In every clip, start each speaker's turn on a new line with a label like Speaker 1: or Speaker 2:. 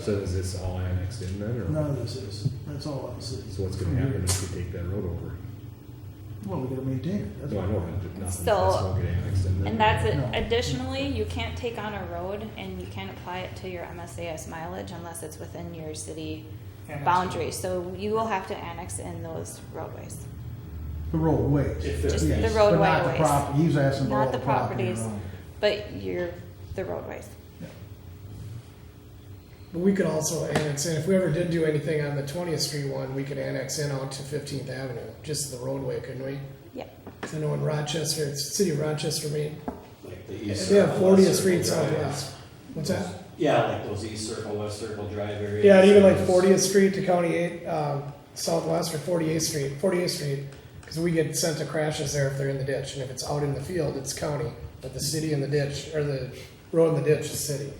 Speaker 1: So is this all annexed in then, or?
Speaker 2: None of this is, that's all on the city.
Speaker 1: So what's gonna happen if we take that road over?
Speaker 2: Well, we gotta maintain it, that's
Speaker 1: No, I
Speaker 2: why.
Speaker 1: know, but nothing, that's
Speaker 3: So-
Speaker 1: not get annexed in then.
Speaker 3: And that's it.
Speaker 2: No.
Speaker 3: Additionally, you can't take on a road and you can't apply it to your MSAS mileage unless it's within your city
Speaker 4: Annex.
Speaker 3: boundaries. So you will have to annex in those roadways.
Speaker 2: The roadways.
Speaker 4: If there's- Just
Speaker 2: Yes,
Speaker 3: the roadway
Speaker 2: But not the
Speaker 3: ways.
Speaker 2: property, he's asking for
Speaker 3: Not
Speaker 2: all
Speaker 3: the
Speaker 2: the property.
Speaker 3: properties.
Speaker 2: around.
Speaker 3: But you're the roadways.
Speaker 2: Yeah.
Speaker 5: But we could also annex in, if we ever did do anything on the 20th Street one, we could annex in out to 15th Avenue, just the roadway, couldn't we?
Speaker 3: Yeah.
Speaker 5: 'Cause I know in Rochester, it's the city of Rochester, I mean,
Speaker 6: Like the east.
Speaker 5: they have
Speaker 6: circle,
Speaker 5: 40th
Speaker 6: west
Speaker 5: Street
Speaker 6: circle drive.
Speaker 5: southwest. What's that?
Speaker 6: Yeah, like those east circle, west circle drive areas.
Speaker 5: Yeah, and even like 40th Street to County 8 um, Southwest or 48th Street, 48th Street, because we get sent to crashes there if they're in the ditch, and if it's out in the field, it's county, but the city in the ditch, or the road in the ditch is city.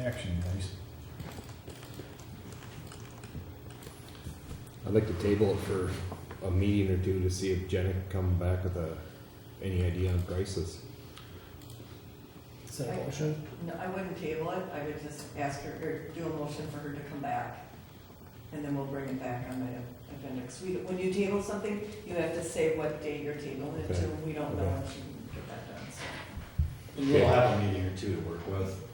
Speaker 7: Action, guys.
Speaker 1: I'd like to table it for a meeting or two to see if Jenna can come back with a, any idea on prices.
Speaker 5: Is that a motion?
Speaker 8: No, I wouldn't table it, I would just ask her, or do a motion for her to come back, and then we'll bring it back on the agenda. 'Cause we, when you table something, you have to say what day you're tabling it to, we don't know if you can get that done, so.
Speaker 6: And we'll have a meeting or two to work with.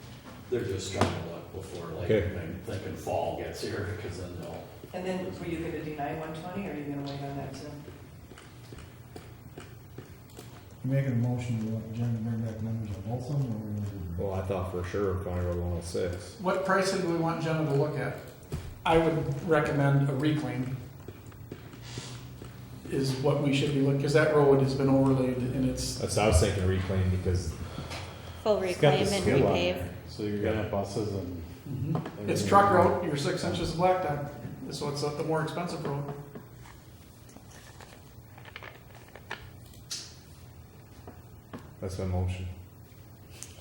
Speaker 6: They're just trying to look before like,
Speaker 1: Okay.
Speaker 6: when- thinking fall gets here, because then they'll.
Speaker 8: And then, were you gonna deny one twenty, or are you gonna wait on that too?
Speaker 7: You making a motion to let Jen bring back numbers on both of them, or we're gonna do?
Speaker 1: Well, I thought for sure County Road one oh six.
Speaker 4: What pricing do we want Jenna to look at? I would recommend a reclaim is what we should be looking, because that road has been overlaid and it's,
Speaker 1: That's, I was thinking reclaim because
Speaker 3: Full reclaim and repave.
Speaker 9: So you're gonna have buses and.
Speaker 4: it's truck road, you're six inches of blacktop, so it's the more expensive road.
Speaker 1: that's my motion.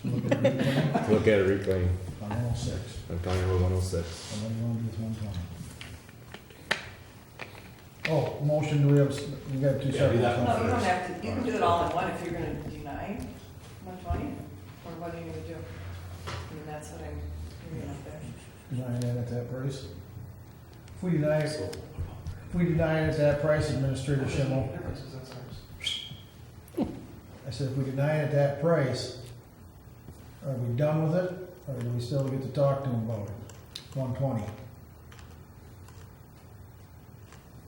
Speaker 7: Look at it
Speaker 1: To Look at a reclaim
Speaker 7: on all six,
Speaker 1: on County Road one oh six.
Speaker 7: and then you wanna do it one time. Oh, motion, do we have, s- we got two
Speaker 6: Yeah, do
Speaker 7: separate.
Speaker 6: that one
Speaker 8: No, you don't
Speaker 6: first.
Speaker 8: have to, you can do it all in one if you're gonna deny one twenty, or what are you gonna do? I mean, that's what I'm, hearing out there.
Speaker 7: Deny that at that price? If we deny, it- if we deny it at that price, Administrator Schimmel,
Speaker 4: That's ours.
Speaker 7: I said, if we deny it at that price, are we done with it, or do we still get to talk to him about it? One twenty.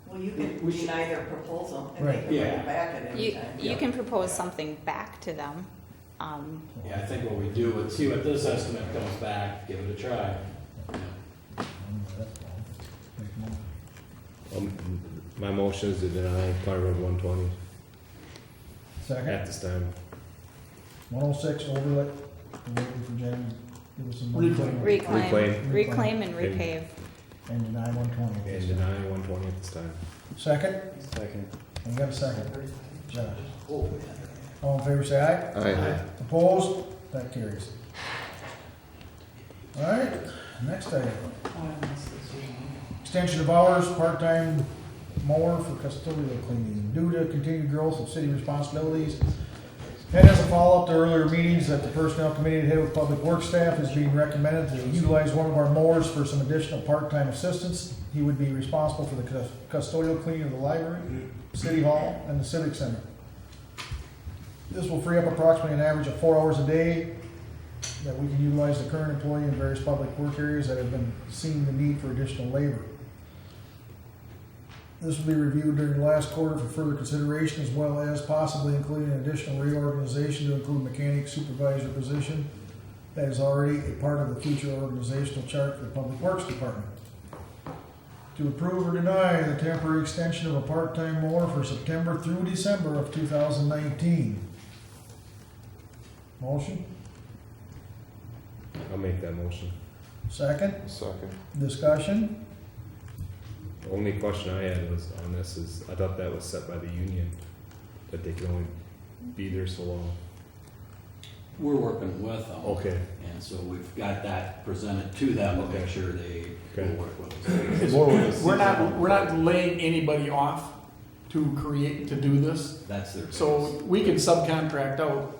Speaker 8: Well, you can
Speaker 4: We should-
Speaker 8: deny their proposal, and they
Speaker 7: Right.
Speaker 8: can bring
Speaker 6: Yeah.
Speaker 8: it back at any
Speaker 3: You,
Speaker 8: time.
Speaker 3: you
Speaker 6: Yeah.
Speaker 3: can propose something back to them. Um,
Speaker 6: Yeah, I think what we do is see what this estimate comes back, give it a try.
Speaker 1: Um, my motion is to deny County Road one twenty at
Speaker 7: Second,
Speaker 1: this time.
Speaker 7: one oh six overlay, we're waiting for Jen to give us some.
Speaker 4: Reclaim.
Speaker 3: reclaim,
Speaker 1: Reclaim.
Speaker 3: reclaim
Speaker 1: And-
Speaker 3: and repave.
Speaker 7: And deny one twenty.
Speaker 1: And deny one twenty at this time.
Speaker 7: Second,
Speaker 9: Second.
Speaker 7: we got a second, Josh.
Speaker 6: Oh,
Speaker 7: All in favor, say aye.
Speaker 1: Aye.
Speaker 7: Opposed? That carries. All right, next item. Extension of hours, part-time mower for custodial cleaning. Due to continued growth of city responsibilities, and as a follow-up to earlier meetings that the personnel committee had with public works staff is being recommended to utilize one of our mowers for some additional part-time assistance. He would be responsible for the cus- custodial cleaning of the library, city hall, and the civic center. This will free up approximately an average of four hours a day that we can utilize the current employee in various public work areas that have been seeing the need for additional labor. This will be reviewed during the last quarter for further consideration, as well as possibly including an additional reorganization to include mechanic supervisor position that is already a part of the future organizational chart for the Public Works Department. To approve or deny the temporary extension of a part-time mower for September through December of two thousand nineteen. Motion,
Speaker 1: I'll make that motion.
Speaker 7: second,
Speaker 9: Second.
Speaker 7: discussion,
Speaker 1: The only question I had was on this is, I thought that was set by the union, that they can only be there so long.
Speaker 6: We're working with them.
Speaker 1: Okay,
Speaker 6: And so we've got that presented to them to make sure they
Speaker 1: Okay.
Speaker 6: will work with us.
Speaker 4: We're not, we're not laying anybody off to create, to do this.
Speaker 6: That's their.
Speaker 4: So we can subcontract out